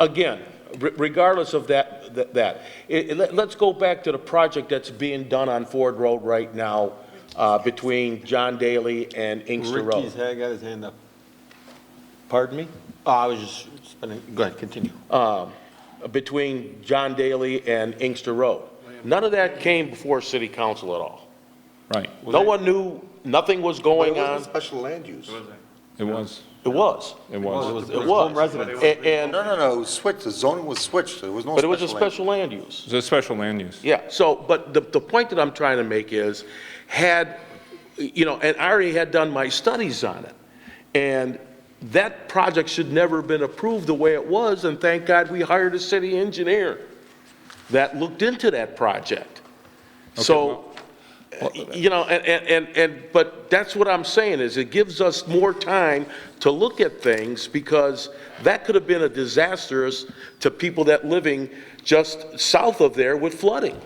again, re- regardless of that, that- that, it- it- let- let's go back to the project that's being done on Ford Road right now uh, between John Daly and Inkster Road. Ricky's had got his hand up. Pardon me? Oh, I was just, spinning- go ahead, continue. between John Daly and Inkster Road. None of that came before city council at all. Right, No one knew, nothing was going on. Special land use. it was, It was. it was. It was. home residence. A- And, No, no, no, it was switched, the zoning was switched, there was no but it special was a land. special land use. It's a special land use. Yeah, so, but the, the point that I'm trying to make is, had, you know, and I already had done my studies on it, and that project should never have been approved the way it was, and thank God we hired a city engineer that looked into that project. So, you know, and, and, and- and, but that's what I'm saying, is it gives us more time to look at things, because that could have been a disastrous to people that living just south of there with flooding.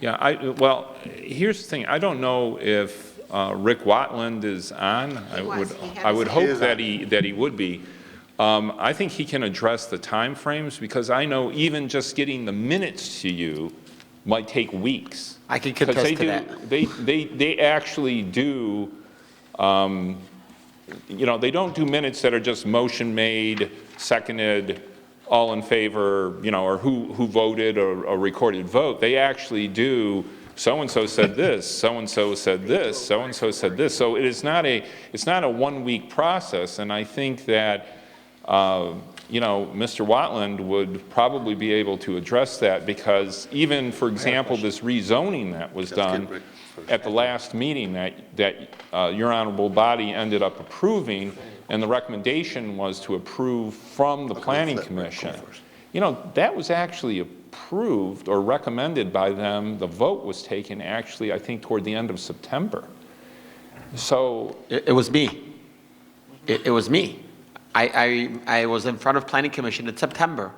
Yeah, I, well, here's the thing, I don't know if uh, Rick Watland is on. I would, was, he had I would his hope that he, that he would be. Um, I think he can address the timeframes, because I know even just getting the minutes to you might take weeks. I can 'Cause contest they to do- that. They, they, they actually do, um, you know, they don't do minutes that are just motion made, seconded, all in favor, you know, or who, who voted or a recorded vote. They actually do, so-and-so said this, so-and-so said this, so-and-so said this. So it is not a, it's not a one-week process, and I think that, uh, you know, Mr. Watland would probably be able to address that because even, for example, this rezoning that was done at the last meeting that, that uh, your honorable body ended up approving, and the recommendation was to approve from the planning commission. You know, that was actually approved or recommended by them. The vote was taken actually, I think, toward the end of September. So, It, it was me. It, it was me. I, I, I was in front of planning commission in September.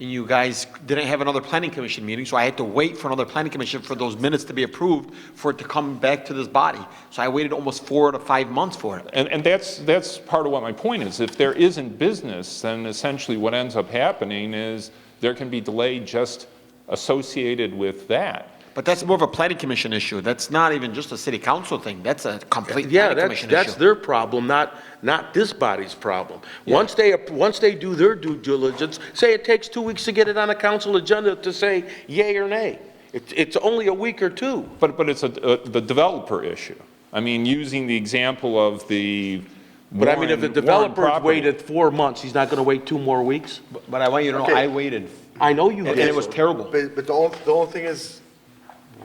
And you guys didn't have another planning commission meeting, so I had to wait for another planning commission for those minutes to be approved for it to come back to this body. So I waited almost four to five months for it. And, and that's, that's part of what my point is. If there isn't business, then essentially what ends up happening is there can be delay just associated with that. But that's more of a planning commission issue. That's not even just a city council thing. That's a complete Yeah, planning that's, commission that's issue. their problem, not, not this body's problem. Once they, once they do their due diligence, say it takes two weeks to get it on a council agenda to say yay or nay. It's, it's only a week or two. But, but it's a, a- the developer issue. I mean, using the example of the But I mean, if the Warren- Warren developer's property- waited four months, he's not gonna wait two more weeks? But I want you to know, Okay. I waited, I know you and did. it was terrible. But, but the only, the only thing is,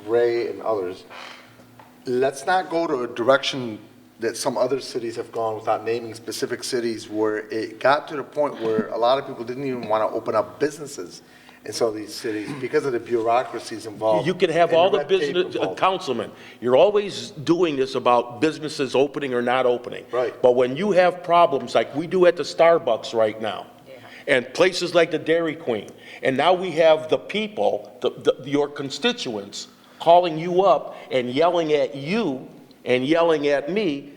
Ray and others, let's not go to a direction that some other cities have gone without naming specific cities where it got to the point where a lot of people didn't even want to open up businesses in some of these cities because of the bureaucracies involved. You can have and all the red tape business, uh, involved. councilmen, you're always doing this about businesses opening or not opening. Right. But when you have problems like we do at the Starbucks right now, and places like the Dairy Queen, and now we have the people, the, the, your constituents, calling you up and yelling at you and yelling at me,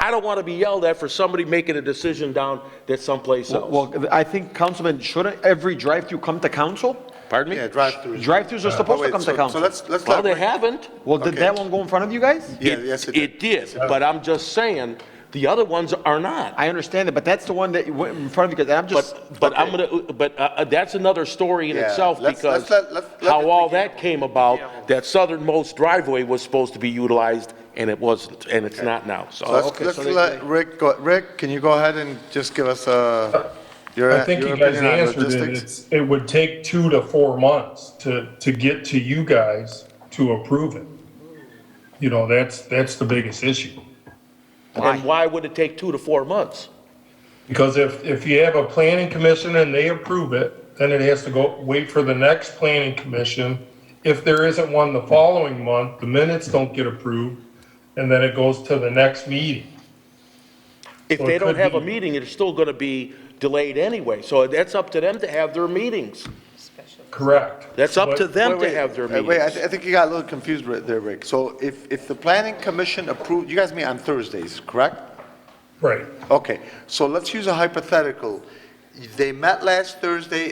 I don't want to be yelled at for somebody making a decision down that someplace else. Well, I think, Councilman, shouldn't every drive-through come to council? Pardon Yeah, me? drive-throughs. Drive-throughs are Oh, supposed to wait, come so- to council. So let's, let's. Well, let they Ray- haven't. Well, did Okay. that one go in front of you guys? Yeah, yes, it It did. did, but I'm just saying, the other ones are not. I understand it, but that's the one that went in front of you guys, I'm just. But, but I'm gonna, but uh, uh, that's another story in Yeah, itself let's- because let's let- let's let how it all begin. that came about, that southernmost driveway was supposed to be utilized and it wasn't, and it's not now, So Oh, so. Let's, let's let Rick go, Rick, can you go ahead and just give us a, your, I think your you guys opinion on answered it. uh, logistics? It's, it would take two to four months to, to get to you guys to approve it. You know, that's, that's the biggest issue. And why would it take two to four months? Because if, if you have a planning commission and they approve it, then it has to go, wait for the next planning commission. If there isn't one the following month, the minutes don't get approved, and then it goes to the next meeting. If Well, they it don't could have a be- meeting, it's still gonna be delayed anyway, so that's up to them to have their meetings. Correct. That's up to But- them to Wait, wait, have their uh, Wait, I, meetings. thi- I think you got a little confused right there, Rick. So if, if the planning commission approved, you guys meet on Thursdays, correct? Right. Okay, so let's use a hypothetical. They met last Thursday